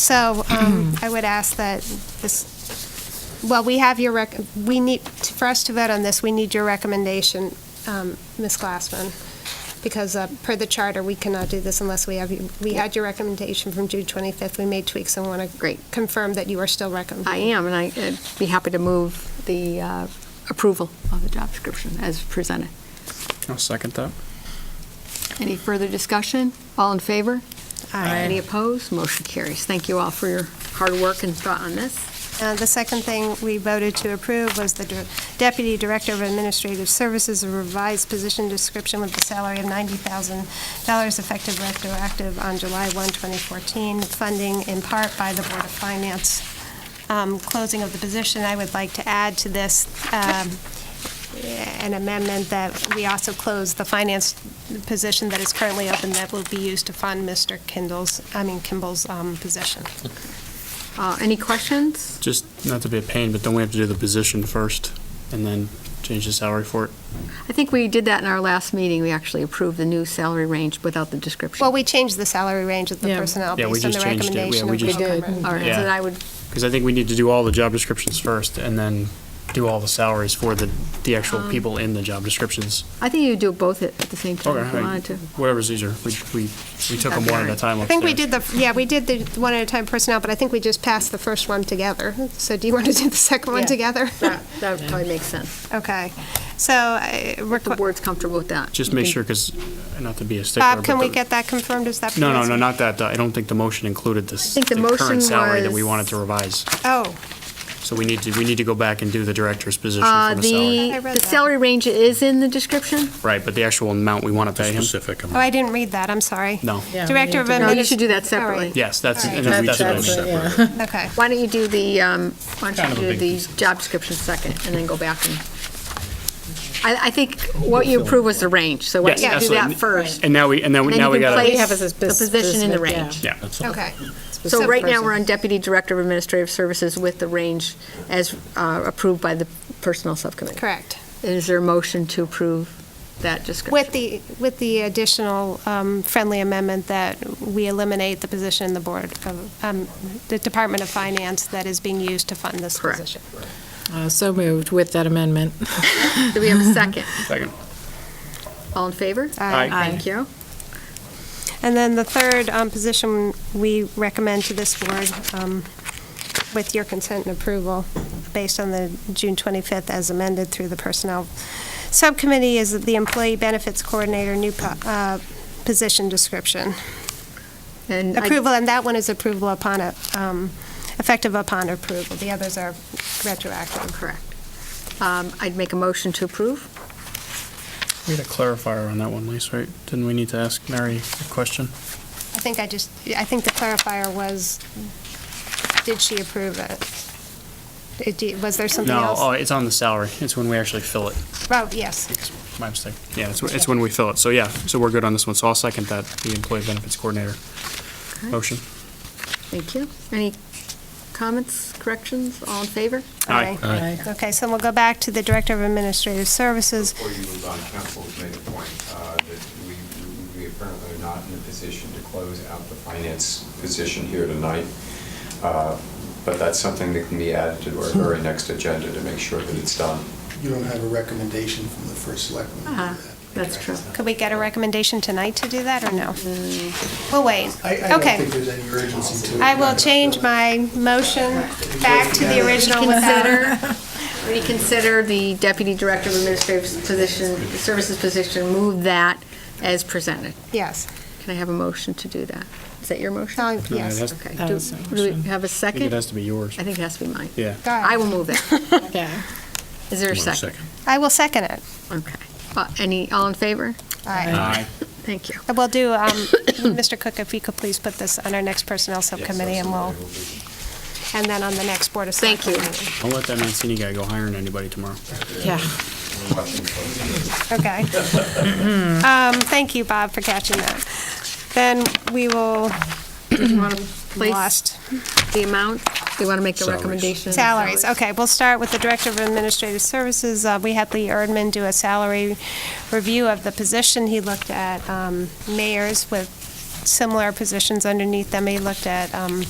So um, I would ask that this, well, we have your, rec. we need, for us to vote on this, we need your recommendation, um, Ms. Glassman, because uh, per the charter, we cannot do this unless we have, you- we had your recommendation from June 25th. We made tweaks and want to Great. confirm that you are still recommending. I am, and I- I'd be happy to move the uh, approval of the job description as presented. I'll second that. Any further discussion? All in favor? Aye. Any opposed? Motion carries. Thank you all for your hard work and thought on this. Uh, The second thing we voted to approve was the dir- Deputy Director of Administrative Services, a revised position description with a salary of $90,000 effective retroactive on July 1, 2014, funding in part by the Board of Finance. Um, Closing of the position, I would like to add to this um, an amendment that we also close the finance position that is currently open that will be used to fund Mr. Kindle's, I mean Kimball's um, position. Uh, Any questions? Just not to be a pain, but don't we have to do the position first and then change the salary for it? I think we did that in our last meeting. We actually approved the new salary range without the description. Well, we changed the salary range of the Yeah. personnel Yeah, we based on the just changed it. Yeah, recommendation we of just- We Bill did. Cummer. All right, so Yeah. then I would, Because I think we need to do all the job descriptions first and then do all the salaries for the, the actual Um, people in the job descriptions. I think you do both at at the same time if Okay, you I- wanted to. Whatever's easier. We, we, we took them one at a time I think we upstairs. did the, yeah, we did the one at a time personnel, but I think we just passed the first one together. So do you want to do the second one Yeah. together? That that probably makes sense. Okay. So, I The requ- board's comfortable with that. Just make sure, because, not to be a stickler. Bob, but can we the- get that confirmed? Is that? No, no, no, possible? not that. I don't think the motion included this, think the the motion current salary that we was- wanted to revise. Oh, So we need to, we need to go back and do the director's position Uh, from the salary. The I read the that. salary range is in the description? Right, but the actual amount we want to pay him? specific oh, I didn't read that. I'm sorry. No. Yeah, we Director need of. No, to- you Administ- should do that All right. separately. Yes, that's, Alright. and then we That's- took it. that's it, yeah. Okay. Why don't you do the, um, why don't Kind you of a do big the piece. job description second, and then go back and, I, I think what you approved was the range, so why Yes, don't you do that absolutely. first? And now we, and then, Then now you we can gotta. place have us as the bus- position in the business, yeah. range. Yeah, Okay. So right now, we're on Deputy Director of Administrative Services with the range as uh, approved by the Personnel Subcommittee. Correct. Is there a motion to approve that description? With the, with the additional um, friendly amendment that we eliminate the position in the Board of, um, the Department of Finance that is being used to fund this Correct. position. Uh, So moved with that amendment. Do we have a second? second. All in favor? Aye. Aye. Thank you. Uh, And then the third um, position we recommend to this board, um, with your consent and approval, based on the June 25th as amended through the Personnel Subcommittee, is the Employee Benefits Coordinator, new po- uh, position description. And I- Approval, and that one is approval upon, a um, effective upon approval. The others are retroactive. Correct. Um, I'd make a motion to approve. We had a clarifier on that one, Lisa, right? Didn't we need to ask Mary a question? I think I just, I think the clarifier was, did she approve it? Did you- Was there something No, else? oh, it's on the salary. It's when we actually fill it. Oh, yes. It's My mistake. Yeah, it's, it's when we fill it. So yeah, so we're good on this one. So I'll second that, the employee benefits coordinator. Motion. Thank you. Any comments, corrections? All in favor? Aye. All right. Okay, so we'll go back to the Director of Administrative Services. Before you move on, council has made a point uh, that we we apparently are not in a position to close out the finance position here tonight, Uh, but that's something that can be added to our very next agenda to make sure that it's done. You don't have a recommendation from the first selectman. to do Uh-huh, that, that's true. Could we get a recommendation tonight to do that, or no? We'll wait. I, I don't Okay. think there's any urgency to it. I will change my motion back to the original without... Consider, reconsider the Deputy Director of Administrative Position, Services Position, move that as presented. Yes. Can I have a motion to do that? Is that your motion? So, it Yes. has- Okay. That Do was my do we have a I think it second? has to be yours. I think it has to be mine. Yeah. Go ahead. I will move it. Okay. Is there a One second? second. I will second it. Okay. Uh, Any, all in favor? All right. Aye. Thank you. We'll do, um, Mr. Cook, if you could please put this on our next Personnel Subcommittee, and we'll, and then on the next Board of Thank you. Selectmen. Don't let that Mancini guy go hiring anybody tomorrow. Yeah. Okay. Um, Thank you, Bob, for catching that. Then we will, Place lost. the amount. Do you want to make the Salaries. recommendation? Salaries, okay, we'll start with the Director of Administrative Services. Uh, We had Lee Erdman do a salary review of the position. He looked at um, mayors with similar positions underneath them. He looked at um,